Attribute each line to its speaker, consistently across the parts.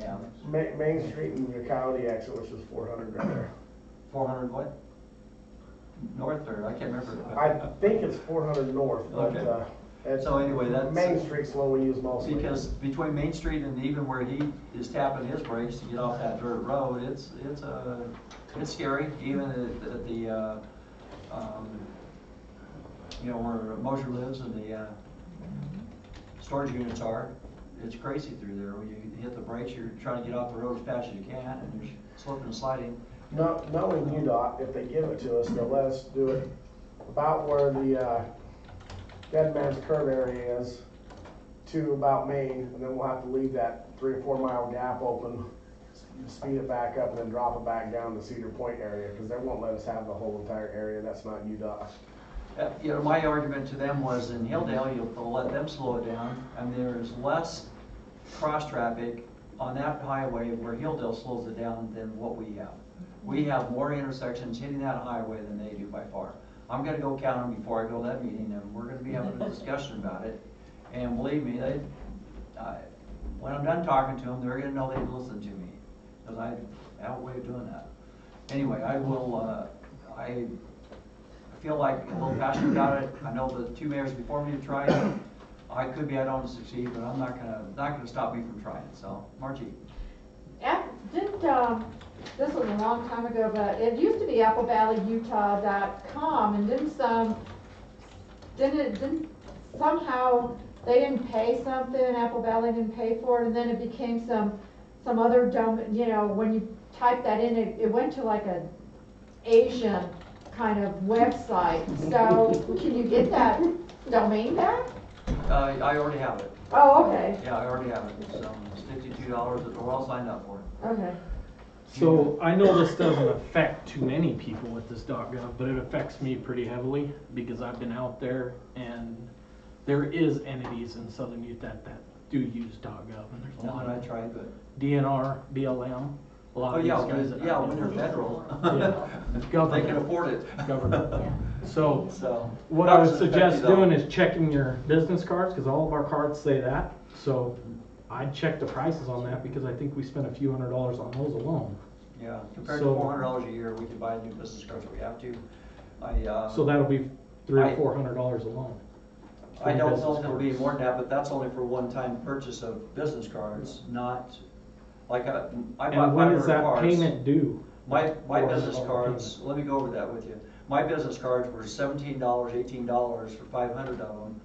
Speaker 1: dollars.
Speaker 2: Main, Main Street and the county exit, which is four hundred right there.
Speaker 1: Four hundred what? North or, I can't
Speaker 2: I
Speaker 1: remember.
Speaker 2: think it's four hundred north, but,
Speaker 1: Okay.
Speaker 2: uh, it's,
Speaker 1: So anyway, that's.
Speaker 2: Main Street's the one we use mostly.
Speaker 1: Because between Main Street and even where he is tapping his brakes to get off that dirt road, it's, it's, uh, it's scary, even at, at the, uh, um, you know, where Mosher lives and the, uh, storage units are, it's crazy through there. When you hit the brakes, you're trying to get off the road as fast as you can, and you're slipping and sliding.
Speaker 2: No, knowing UDOT, if they give it to us, they'll let us do it about where the, uh, Dead Man's Curve area is to about Main, and then we'll have to leave that three or four mile gap open, speed it back up, and then drop it back down to Cedar Point area, because they won't let us have the whole entire area, that's not UDOT.
Speaker 1: Uh, You know, my argument to them was in Hilldale, you'll they'll let them slow it down, and there is less cross-traffic on that highway where Hilldale slows it down than what we have. We have more intersections hitting that highway than they do by far. I'm gonna go count them before I go to that meeting, and we're gonna be having a discussion about it. And believe me, they, I- when I'm done talking to them, they're gonna know they've listened to me, because I have a way of doing that. Anyway, I will, uh, I I feel like a little passionate about it. I know the two mayors before me have tried. it. I could be, I don't succeed, but I'm not gonna, not gonna stop me from trying, so, Margie.
Speaker 3: App- Did, um, this was a long time ago, but it used to be applevalleyutah.com and didn't some, didn't, it- didn't somehow they didn't pay something, Apple Valley didn't pay for it, and then it became some, some other dumb, you know, when you type that in, it, it went to like a Asian kind of website. So can you get that domain back?
Speaker 1: Uh, I already have it.
Speaker 3: Oh, okay,
Speaker 1: Yeah, I already have it. It's, um, it's fifty-two dollars, we're all signed up for it.
Speaker 3: okay.
Speaker 4: So I know this doesn't affect too many people with this .gov, but it affects me pretty heavily because I've been out there and there is entities in Southern Utah that do use .gov and there's a
Speaker 1: Not
Speaker 4: lot
Speaker 1: that I
Speaker 4: of
Speaker 1: tried, but,
Speaker 4: DNR, BLM, a lot
Speaker 1: oh,
Speaker 4: of these
Speaker 1: yeah,
Speaker 4: guys that
Speaker 1: when- yeah,
Speaker 4: I
Speaker 1: when they're
Speaker 4: know.
Speaker 1: federal. They can
Speaker 4: Government.
Speaker 1: afford it.
Speaker 4: Government. So
Speaker 1: So.
Speaker 4: what I would suggest doing is checking your business cards because all of our cards say that. So I'd check the prices on that because I think we spent a few hundred dollars on those alone.
Speaker 1: Yeah, compared to
Speaker 4: So-
Speaker 1: four hundred dollars a year, we could buy new business cards if we have to. I, uh.
Speaker 4: So that'll be three
Speaker 1: I-
Speaker 4: or four hundred dollars alone.
Speaker 1: I don't
Speaker 4: for
Speaker 1: know
Speaker 4: business
Speaker 1: if it'll be
Speaker 4: cards.
Speaker 1: more than that, but that's only for one-time purchase of business cards, not, like, I I bought
Speaker 4: And
Speaker 1: five
Speaker 4: when is
Speaker 1: hundred
Speaker 4: that
Speaker 1: cards.
Speaker 4: payment due?
Speaker 1: My, my
Speaker 4: Or is it
Speaker 1: business
Speaker 4: all
Speaker 1: cards, let me go over that with you. My business cards were seventeen dollars, eighteen dollars for five hundred of them.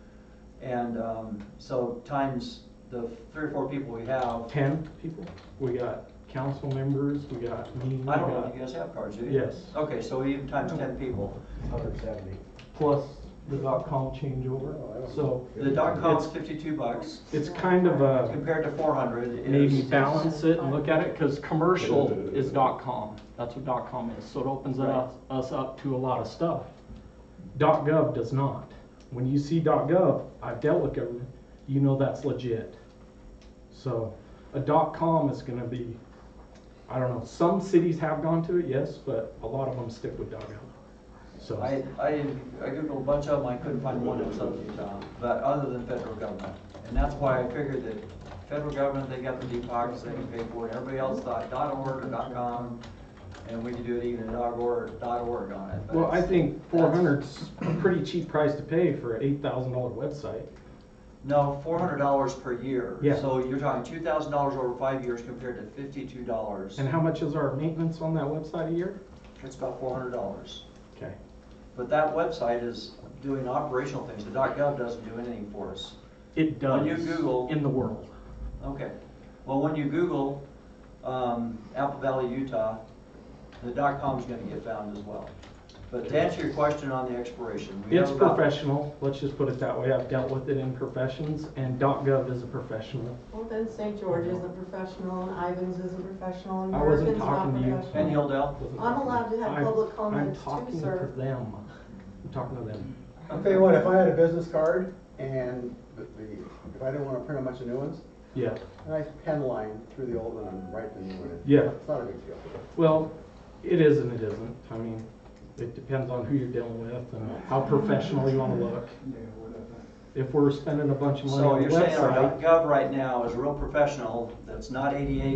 Speaker 1: And, um, so times the three or four people we have,
Speaker 4: Ten people? We got council members, we got me, we
Speaker 1: I don't know,
Speaker 4: got
Speaker 1: you guys have cards, do you?
Speaker 4: Yes.
Speaker 1: Okay, so even times ten people.
Speaker 2: Hundred seventy.
Speaker 4: plus the dot com changeover,
Speaker 2: Oh, I don't
Speaker 4: so.
Speaker 1: The dot com's
Speaker 4: it's-
Speaker 1: fifty-two bucks,
Speaker 4: It's kind of a,
Speaker 1: compared to four hundred is.
Speaker 4: maybe balance it and look at it, cause commercial is dot com, that's what dot com is, so it opens
Speaker 1: Right.
Speaker 4: us, us up to a lot of stuff. Dot gov does not. When you see dot gov, I've dealt with government, you know that's legit. So a dot com is gonna be, I don't know, some cities have gone to it, yes, but a lot of them stick with dot gov. So
Speaker 1: I, I, I Googled a bunch of them, I couldn't find one in Southern Utah, but other than federal government. And that's why I figured that federal government, they got the deep pockets, they can pay for it. Everybody else thought dot org or dot com, and we could do it even at dot org, dot org on it. but
Speaker 4: Well, I
Speaker 1: it's-
Speaker 4: think four
Speaker 1: that's-
Speaker 4: hundred's a pretty cheap price to pay for an eight thousand dollar website.
Speaker 1: No, four hundred dollars per year.
Speaker 4: Yeah.
Speaker 1: So you're talking two thousand dollars over five years compared to fifty-two dollars.
Speaker 4: And how much is our maintenance on that website a year?
Speaker 1: It's about four hundred dollars.
Speaker 4: Okay.
Speaker 1: But that website is doing operational things. The gov doesn't do anything for us.
Speaker 4: It
Speaker 1: When
Speaker 4: does.
Speaker 1: you Google-
Speaker 4: In the world.
Speaker 1: Okay, well, when you Google, um, Apple Valley, Utah, the dot com's gonna get found as well. But to answer your question on the expiration. we have
Speaker 4: It's
Speaker 1: about-
Speaker 4: professional, let's just put it that way. I've dealt with it in professions and .gov is a professional.
Speaker 5: Well, then St. George isn't professional, and Ivans isn't professional, and
Speaker 4: I wasn't
Speaker 5: Morgan's not
Speaker 4: talking to you.
Speaker 1: And
Speaker 5: professional.
Speaker 1: Hilldale,
Speaker 5: I'm allowed to have
Speaker 4: I've-
Speaker 5: public comments too,
Speaker 4: I'm talking
Speaker 5: sir.
Speaker 4: to them. I'm talking to them.
Speaker 6: I'll tell you what, if I had a business card and the- the- if I didn't want to print a bunch of new ones,
Speaker 4: Yeah,
Speaker 6: a nice pen line through the old one and write the new one. in.
Speaker 4: Yeah.
Speaker 6: It's not a big deal.
Speaker 4: well, it is and it isn't. I mean, it depends on who you're dealing with and how professional you wanna look. If we're spending a bunch of money
Speaker 1: so
Speaker 4: on a
Speaker 1: you're
Speaker 4: website.
Speaker 1: saying our dot gov right now is real professional, that's not ADA